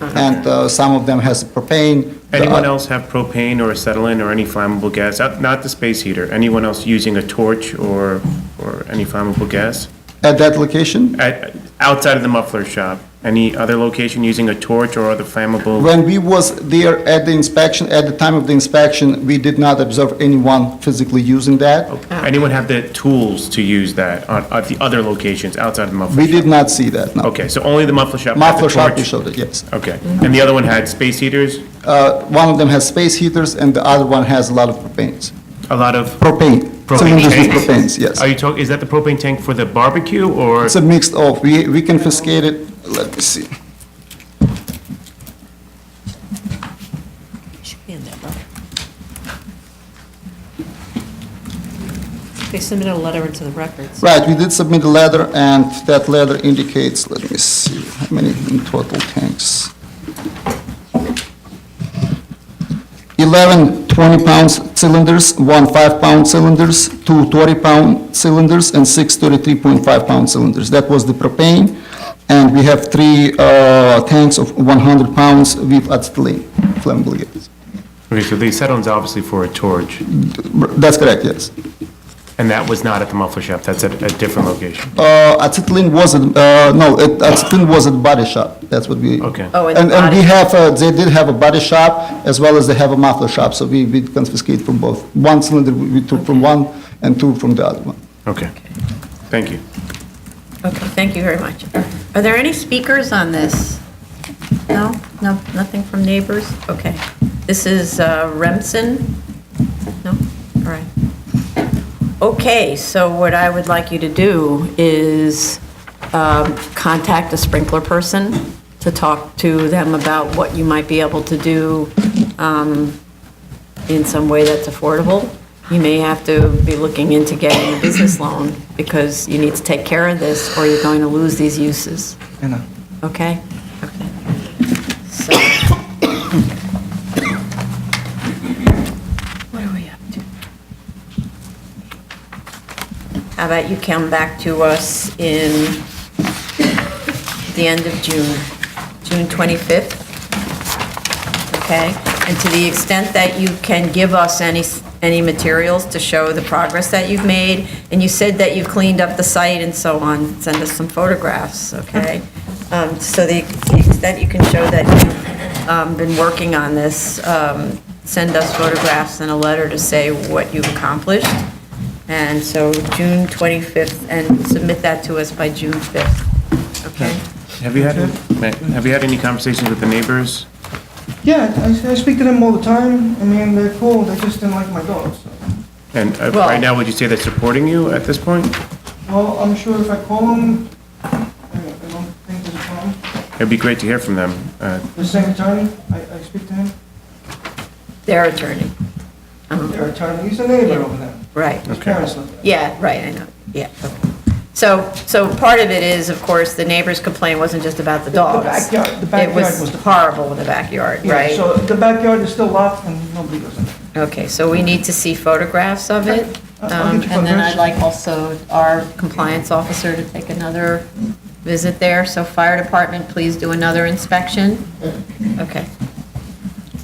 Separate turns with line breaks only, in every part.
and uh, some of them has propane. the
Anyone
oth-
else have propane or acetylene or any flammable gas? Uh, Not the space heater. Anyone else using a torch or, or any flammable gas?
At that location,
At- Outside of the muffler shop, any other location using a torch or other flammable?
when we was there at the inspection, at the time of the inspection, we did not observe anyone physically using that.
Anyone have the tools to use that on, at the other locations outside of the muffler?
We
shop?
did not see that, no.
Okay, so only the muffler shop had the
Muffler shop, we
torch?
showed it, yes.
Okay, and the other one had space heaters,
Uh, One of them has space heaters, and the other one has a lot of propanes.
a lot of,
Propane.
Propane
Cylinders with
tanks?
propanes, yes.
are you talking, is that the propane tank for the barbecue or?
It's a mixed of, we we confiscated, let me see.
Should be in that letter. They submitted a letter into the records.
Right, we did submit a letter, and that letter indicates, let me see, how many in total tanks? 11 20-pound cylinders, one 5-pound cylinders, two 20-pound cylinders, and six 33.5-pound cylinders. That was the propane, and we have three uh, tanks of 100 pounds with acetylene, flammable gas.
Okay, so the acetylene's obviously for a torch,
That's correct, yes.
and that was not at the muffler shop, that's at a different location.
Uh, acetylene wasn't, uh, no, it- acetylene was at body shop, that's what we.
Okay.
Oh, and
And, and we
body-
have, uh, they did have a body shop, as well as they have a muffler shop, so we, we confiscate from both. One cylinder we we took from one, and two from the other one.
Okay, thank you.
Okay, thank you very much. Are there any speakers on this? No? No, nothing from neighbors? Okay. This is uh, Remsen? No? All right. Okay, so what I would like you to do is um, contact a sprinkler person to talk to them about what you might be able to do um, in some way that's affordable. You may have to be looking into getting a business loan because you need to take care of this or you're going to lose these uses. Okay? Okay. So. What are we up to? How about you come back to us in the end of June, June 25th? Okay, and to the extent that you can give us any, any materials to show the progress that you've made, and you said that you've cleaned up the site and so on, send us some photographs, okay? Um, So the the extent you can show that you've um, been working on this, um, send us photographs and a letter to say what you've accomplished. And so June 25th, and submit that to us by June 5th, okay?
Have you had, have you had any conversations with the neighbors?
Yeah, I, I speak to them all the time. I mean, they're cool. They just didn't like my dog. So.
And uh,
Well-
right now, would you say they're supporting you at this point?
Well, I'm sure if I call them, I, I don't think there's a problem.
It'd be great to hear from them. Uh,
The same attorney, I, I speak to him.
Their attorney. Um,
Their attorney, he's a neighbor over there.
Right.
His
Okay.
parents live there.
Yeah, right, I know, yeah. So, so part of it is, of course, the neighbor's complaint wasn't just about the dogs.
backyard- the
It
backyard was
was
the-
horrible in the backyard,
Yeah,
right?
So the backyard is still locked and nobody goes in. there.
Okay, so we need to see photographs of it.
I'll- I'll
Um,
get you
And then
photographs.
I'd like also our compliance officer to take another visit there. So fire department, please do another inspection. Okay.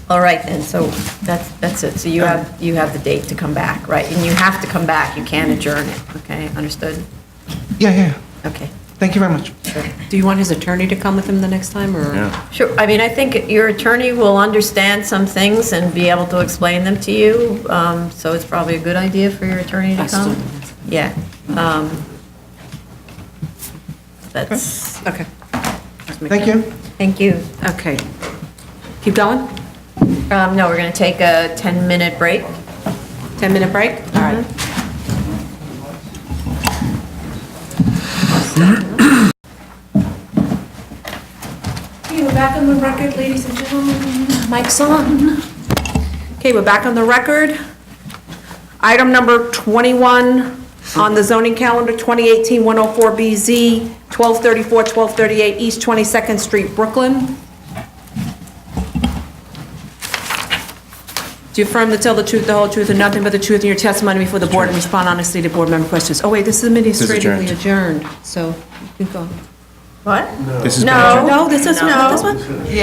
All right then, so that's, that's it. So you have, you have the date to come back, right? And you have to come back, you can't adjourn it, okay? Understood?
Yeah, yeah.
Okay.
Thank you very much.
Do you want his attorney to come with him the next time, or?
Yeah,
Sure, I mean, I think your attorney will understand some things and be able to explain them to you, um, so it's probably a good idea for your attorney to
I still
come.
don't know.
Yeah. um, That's,
Okay,
Thank you.
thank you.
okay. Keep going?
Um, No, we're going to take a 10-minute break. Mm-hmm.
10-minute break? All right.
Okay, we're back on the record, ladies and gentlemen. Mike's on.
Okay, we're back on the record. Item number 21 on the zoning calendar, 2018-104BZ, 1234, 1238 East 22nd Street, Brooklyn. Do you affirm to tell the truth, the whole truth, and nothing but the truth in your testimony before the board and respond honestly to board member questions? Oh, wait, this is administratively adjourned, so you can go.
What?
this is.
No.
No, this is, no, this one?